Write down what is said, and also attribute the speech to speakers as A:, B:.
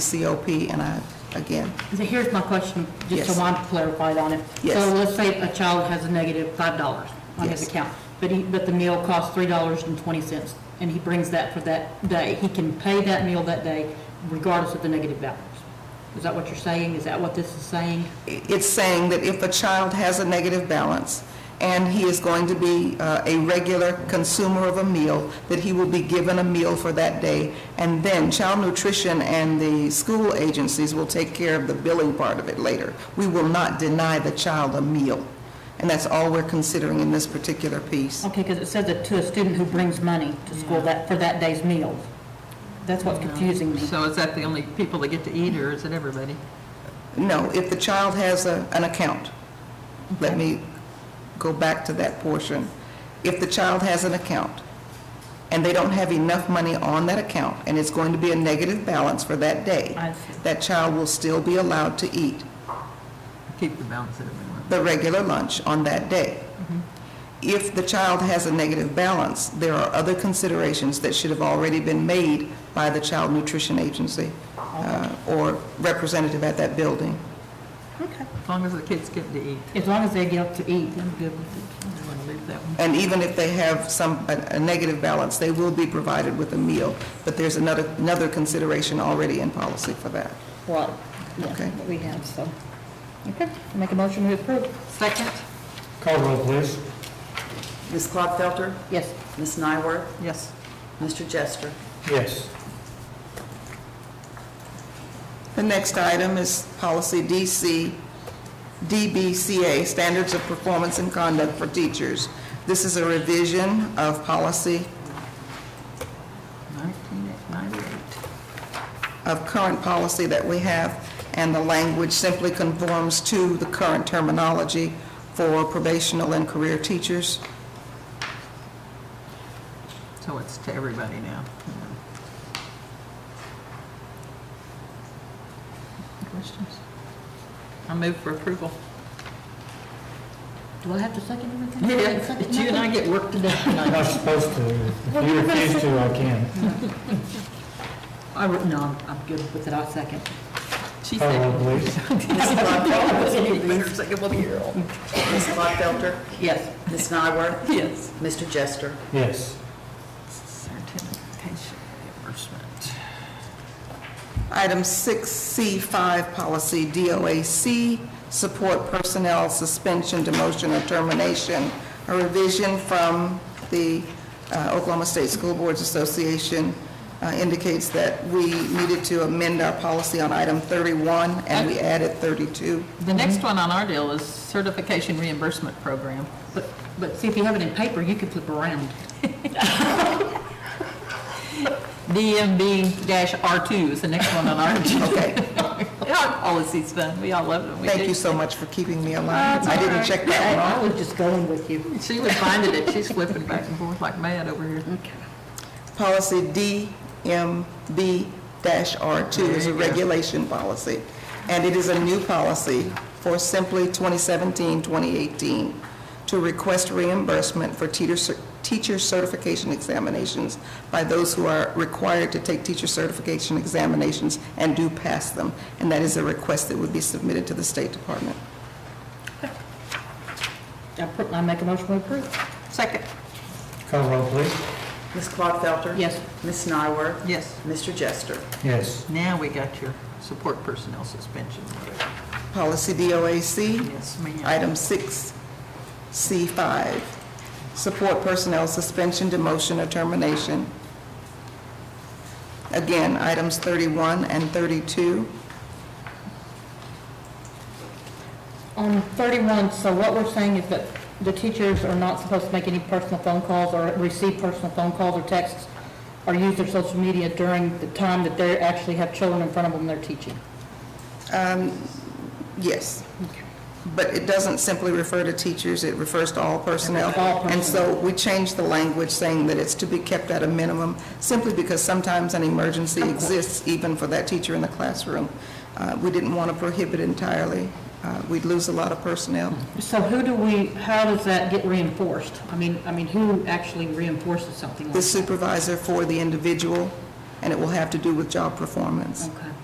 A: COP, and I, again,
B: So here's my question, just
A: Yes.
B: so I'm clarified on it.
A: Yes.
B: So let's say a child has a negative five dollars on his
A: Yes.
B: account, but he, but the meal costs three dollars and twenty cents, and he brings that for that day. He can pay that meal that day regardless of the negative balance. Is that what you're saying? Is that what this is saying?
A: it's saying that if a child has a negative balance and he is going to be uh, a regular consumer of a meal, that he will be given a meal for that day. And then child nutrition and the school agencies will take care of the billing part of it later. We will not deny the child a meal. And that's all we're considering in this particular piece.
B: Okay, because it says that to a student who brings money to school that, for that day's meal. That's what's confusing me.
C: So is that the only people that get to eat, or is it everybody?
A: No, if the child has a, an account, let me go back to that portion. If the child has an account and they don't have enough money on that account and it's going to be a negative balance for that day,
B: I see.
A: that child will still be allowed to eat
C: Keep the balance that everyone.
A: the regular lunch on that day.
B: Mm-hmm.
A: If the child has a negative balance, there are other considerations that should have already been made by the Child Nutrition Agency uh, or representative at that building.
B: Okay.
C: As long as the kids get to eat,
B: As long as they get up to eat, I'm good with it.
C: I want to leave that one.
A: And even if they have some, a a negative balance, they will be provided with a meal. But there's another, another consideration already in policy for that.
B: Right, yeah,
A: Okay.
B: what we have, so. Okay, make a motion to approve.
C: Second?
D: Call roll, please.
E: Ms. Klopfelter,
B: Yes.
E: Ms. Nyworth,
C: Yes.
E: Mr. Jester.
D: Yes.
A: The next item is policy DC, DBCA, Standards of Performance and Conduct for Teachers. This is a revision of policy,
C: 1998.
A: of current policy that we have, and the language simply conforms to the current terminology for probational and career teachers.
C: So it's to everybody now. Questions? I move for approval.
B: Do I have to second everything?
C: Did you and I get work today?
D: I'm not supposed to. If you refuse to, I can.
B: I, wrote- no, I'm- I'm good with it, I'll second.
C: She
D: Call
C: said.
D: roll, Uh, please.
C: Better second one here.
E: Ms. Klopfelter,
B: Yes.
E: Ms. Nyworth,
C: Yes.
E: Mr. Jester.
D: Yes.
C: Certification reimbursement.
A: Item 6C5, policy DOAC, support personnel suspension, demotion, or termination, a revision from the uh, Oklahoma State School Boards Association uh, indicates that we needed to amend our policy on item 31, and we added 32.
C: The next one on our deal is certification reimbursement program.
B: But, but see, if you have it in paper, you can flip around.
C: DMB-R2 is the next one on our agenda.
A: Okay,
C: Our policy's fun, we all love it. We
A: thank
C: do.
A: you so much for keeping me alive. I didn't check that one off.
B: I was just going with you.
C: She was finding it, she's flipping back and forth like mad over here.
B: Okay.
A: Policy DMB-R2 is a
C: There you go.
A: regulation policy, and it is a new policy for simply 2017-2018 to request reimbursement for teeter cer- teacher certification examinations by those who are required to take teacher certification examinations and do pass them. And that is a request that would be submitted to the State Department.
B: I put- I make a motion to approve.
C: Second,
D: Call roll, please.
E: Ms. Klopfelter.
B: Yes.
E: Ms. Nyworth,
C: yes,
E: Mr. Jester.
D: Yes.
C: now we got your support personnel suspension.
A: Policy DOAC,
C: Yes, ma'am.
A: Item 6C5, support personnel suspension, demotion, or termination. Again, items 31 and 32.
B: On thirty-one, so what we're saying is that the teachers are not supposed to make any personal phone calls or receive personal phone calls or texts or use their social media during the time that they actually have children in front of them they're teaching.
A: um, Yes. But it doesn't simply refer to teachers, it refers to all personnel.
B: All
A: And so we changed the language saying that it's to be kept at a minimum, simply because sometimes an emergency exists even for that teacher in the classroom. Uh, We didn't want to prohibit entirely. Uh, We'd lose a lot of personnel.
B: So who do we, how does that get reinforced? I mean, I mean, who actually reinforces something like
A: the
B: that?
A: supervisor for the individual, and it will have to do with job performance.
B: Okay.